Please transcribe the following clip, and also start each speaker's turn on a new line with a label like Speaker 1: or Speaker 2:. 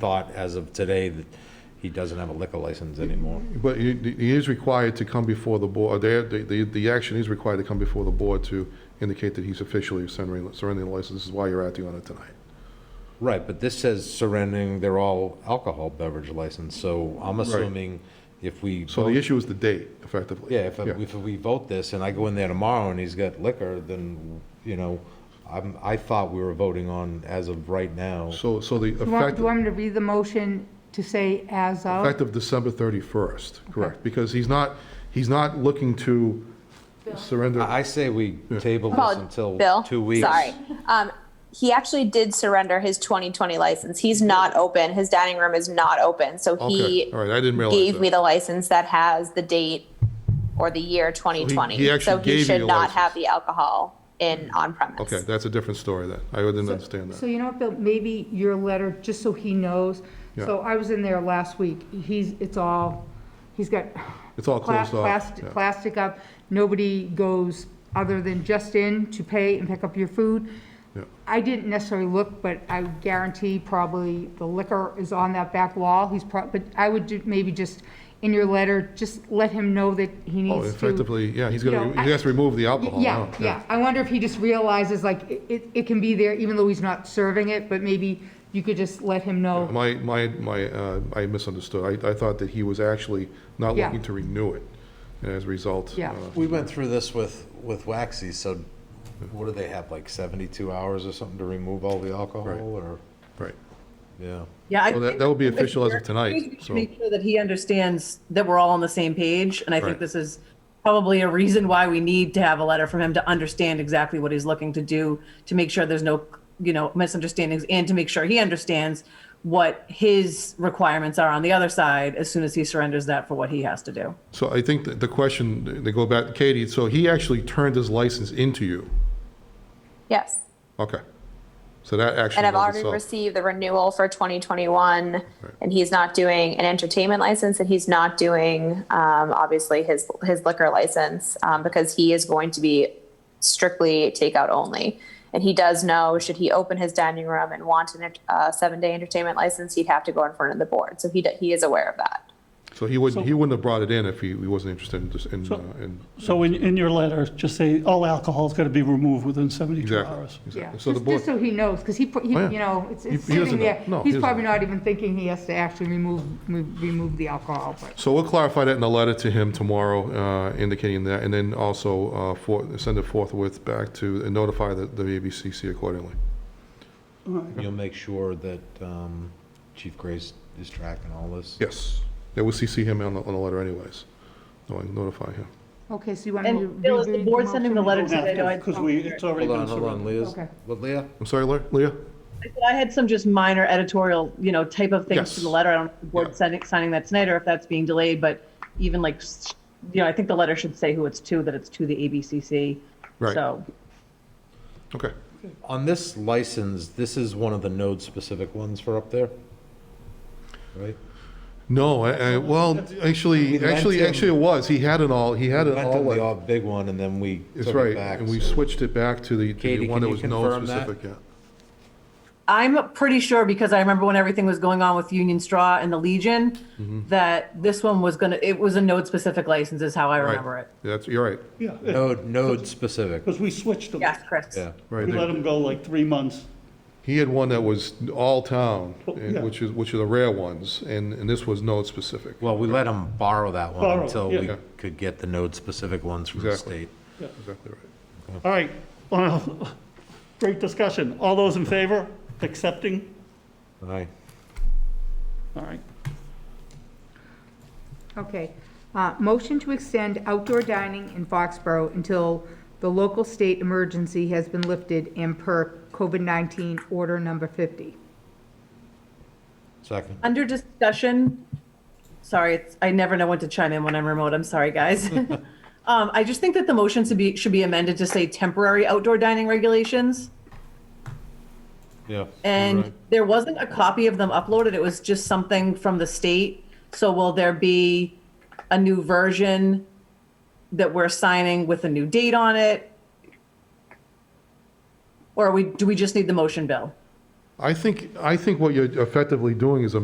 Speaker 1: thought as of today that he doesn't have a liquor license anymore.
Speaker 2: But he, he is required to come before the board, the, the, the action is required to come before the board to indicate that he's officially surrendering, surrendering the license, this is why you're acting on it tonight.
Speaker 1: Right, but this says surrendering, they're all alcohol beverage license, so I'm assuming if we.
Speaker 2: So
Speaker 1: vote-
Speaker 2: the issue is the date, effectively.
Speaker 1: Yeah, if, if we vote this and I go in there tomorrow and he's got liquor, then, you know, I'm, I thought we were voting on as of right now.
Speaker 2: So, so the
Speaker 3: Do you want, do you
Speaker 2: effective,
Speaker 3: want me to read the motion to say as of?
Speaker 2: effective December 31st, correct? Because he's not, he's not looking to surrender,
Speaker 1: I I say we table this
Speaker 4: Paul,
Speaker 1: until
Speaker 4: Bill,
Speaker 1: two weeks.
Speaker 4: Sorry. Um, he actually did surrender his 2020 license. He's not open. His dining room is not open. So
Speaker 2: okay,
Speaker 4: he
Speaker 2: all right, I didn't realize that.
Speaker 4: gave me the license that has the date or the year 2020.
Speaker 2: he actually gave you
Speaker 4: should
Speaker 2: the
Speaker 4: not
Speaker 2: license.
Speaker 4: have the alcohol in on premise.
Speaker 2: Okay, that's a different story then, I didn't understand
Speaker 3: So
Speaker 2: that.
Speaker 3: you know what, Bill, maybe your letter, just so he knows. So I was in there last week. He's, it's all, he's got
Speaker 2: It's all
Speaker 3: pla-
Speaker 2: closed off.
Speaker 3: plastic,
Speaker 2: yeah.
Speaker 3: plastic up. Nobody goes other than just in to pay and pick up your food.
Speaker 2: Yeah.
Speaker 3: I didn't necessarily look, but I guarantee probably the liquor is on that back wall. He's prob, but I would ju- maybe just, in your letter, just let him know that he
Speaker 2: Oh,
Speaker 3: needs to.
Speaker 2: effectively, yeah, he's
Speaker 3: you know,
Speaker 2: gonna,
Speaker 3: I-
Speaker 2: he has to remove the alcohol
Speaker 3: Yeah,
Speaker 2: now.
Speaker 3: yeah. I wonder if he just realizes, like, it- it, it can be there even though he's not serving it, but maybe you could just let him know.
Speaker 2: My, my, my, uh, I misunderstood. I, I thought that he was actually not
Speaker 3: Yeah.
Speaker 2: looking to renew it, and as a result.
Speaker 3: Yeah.
Speaker 2: uh,
Speaker 1: We went through this with, with Waxy, so what do they have, like 72 hours or something to remove all the alcohol
Speaker 2: Right.
Speaker 1: or,
Speaker 2: Right.
Speaker 1: yeah?
Speaker 5: Yeah. I
Speaker 2: Well, that-
Speaker 5: think-
Speaker 2: that will be
Speaker 5: I think
Speaker 2: official as of
Speaker 5: we're-
Speaker 2: tonight,
Speaker 5: we need to
Speaker 2: so-
Speaker 5: Make sure that he understands that we're all on the same page, and I
Speaker 2: Right.
Speaker 5: think this is probably a reason why we need to have a letter from him to understand exactly what he's looking to do, to make sure there's no, you know, misunderstandings, and to make sure he understands what his requirements are on the other side as soon as he surrenders that for what he has to do.
Speaker 2: So I think that the question, they go back, Katie, so he actually turned his license into you.
Speaker 4: Yes.
Speaker 2: Okay. So that actually.
Speaker 4: And I've
Speaker 2: was
Speaker 4: already
Speaker 2: itself-
Speaker 4: received the renewal for 2021, and he's not doing an entertainment license, and he's not doing um, obviously his his liquor license um, because he is going to be strictly takeout only. And he does know should he open his dining room and want a uh, seven day entertainment license, he'd have to go in front of the board. So he d- he is aware of that.
Speaker 2: So he wouldn't, he wouldn't have brought it in if he, he wasn't interested in, just- in,
Speaker 6: So-
Speaker 2: uh, in,
Speaker 6: So in, in your letter, just say all alcohol is going to be removed within 72
Speaker 2: exactly.
Speaker 6: hours.
Speaker 3: Yeah,
Speaker 2: exactly. So the
Speaker 3: just, just
Speaker 2: board,
Speaker 3: so he knows, because he, put- he-
Speaker 2: Oh, yeah.
Speaker 3: you know, it's it's
Speaker 2: He- he doesn't
Speaker 3: sitting there.
Speaker 2: know. No, he
Speaker 3: He's
Speaker 2: doesn't
Speaker 3: probably
Speaker 2: know.
Speaker 3: not even thinking he has to actually remove, remove remove the alcohol, but.
Speaker 2: so we'll clarify that in a letter to him tomorrow, uh, indicating that, and then also, uh, for, send it forthwith back to, and notify the, the ABCC accordingly.
Speaker 1: You'll make sure that um, Chief Grace is tracking all this?
Speaker 2: Yes. Yeah, we'll CC him on the, on the letter anyways. No, I notify him.
Speaker 3: Okay, so you want me to
Speaker 5: And Bill, is the
Speaker 3: reread
Speaker 5: board sending the
Speaker 3: motion?
Speaker 5: letter today? though, I-
Speaker 6: Because we, it's already
Speaker 1: Hold
Speaker 6: been
Speaker 1: on, hold on,
Speaker 6: surrendered.
Speaker 1: Leah's,
Speaker 3: Okay.
Speaker 1: what, Leah?
Speaker 2: I'm sorry, Le- Leah?
Speaker 5: I had some just minor editorial, you know, type of things
Speaker 2: Yes.
Speaker 5: to the letter. I don't know if the
Speaker 2: Yeah.
Speaker 5: board sending, signing that tonight or if that's being delayed, but even like, s- you know, I think the letter should say who it's to, that it's to the ABCC.
Speaker 2: Right.
Speaker 5: So,
Speaker 2: Okay.
Speaker 1: On this license, this is one of the node-specific ones for up there? Right?
Speaker 2: No, I, I, well, actually,
Speaker 1: lent
Speaker 2: actually,
Speaker 1: him-
Speaker 2: actually it was. He had it all, he had it
Speaker 1: Went to
Speaker 2: all.
Speaker 1: the
Speaker 2: like-
Speaker 1: all big one, and then we
Speaker 2: It's
Speaker 1: took it
Speaker 2: right,
Speaker 1: back.
Speaker 2: and we
Speaker 1: so-
Speaker 2: switched it back to the, to the
Speaker 1: Katie, can
Speaker 2: one that
Speaker 1: you
Speaker 2: was no
Speaker 1: confirm that?
Speaker 2: specific yet.
Speaker 5: I'm pretty sure because I remember when everything was going on with Union Straw and the Legion,
Speaker 2: Mm-hmm.
Speaker 5: that this one was gonna, it was a node specific license is how I
Speaker 2: Right.
Speaker 5: remember it.
Speaker 2: That's, you're right,
Speaker 6: Yeah,
Speaker 1: Node, node-specific,
Speaker 6: because we switched them.
Speaker 5: Yes, Chris.
Speaker 1: yeah.
Speaker 2: right.
Speaker 6: We let
Speaker 2: there.
Speaker 6: them go like three months.
Speaker 2: He had one that was all town,
Speaker 6: Oh,
Speaker 2: and-
Speaker 6: yeah.
Speaker 2: which is, which are the rare ones, and, and this was no specific.
Speaker 1: Well, we let them borrow that one
Speaker 6: Borrow,
Speaker 1: until we
Speaker 6: yeah.
Speaker 1: could get the node-specific ones from the
Speaker 2: Exactly.
Speaker 1: state.
Speaker 2: Exactly right.
Speaker 6: All right, well, great discussion. All those in favor, accepting?
Speaker 1: Aye.
Speaker 6: All right.
Speaker 3: Okay. Uh, Motion to extend outdoor dining in Foxborough until the local state emergency has been lifted and per COVID-19 order number 50.
Speaker 1: Second.
Speaker 5: Under discussion, sorry, it's, I never know when to chime in when I'm remote. I'm sorry, guys. Um, I just think that the motion should be, should be amended to say temporary outdoor dining regulations.
Speaker 1: Yeah.
Speaker 5: And there wasn't a copy of them uploaded. It was just something from the state. So will there be a new version that we're signing with a new date on it? Or we, do we just need the motion, Bill?
Speaker 2: I think, I think what you're effectively doing is a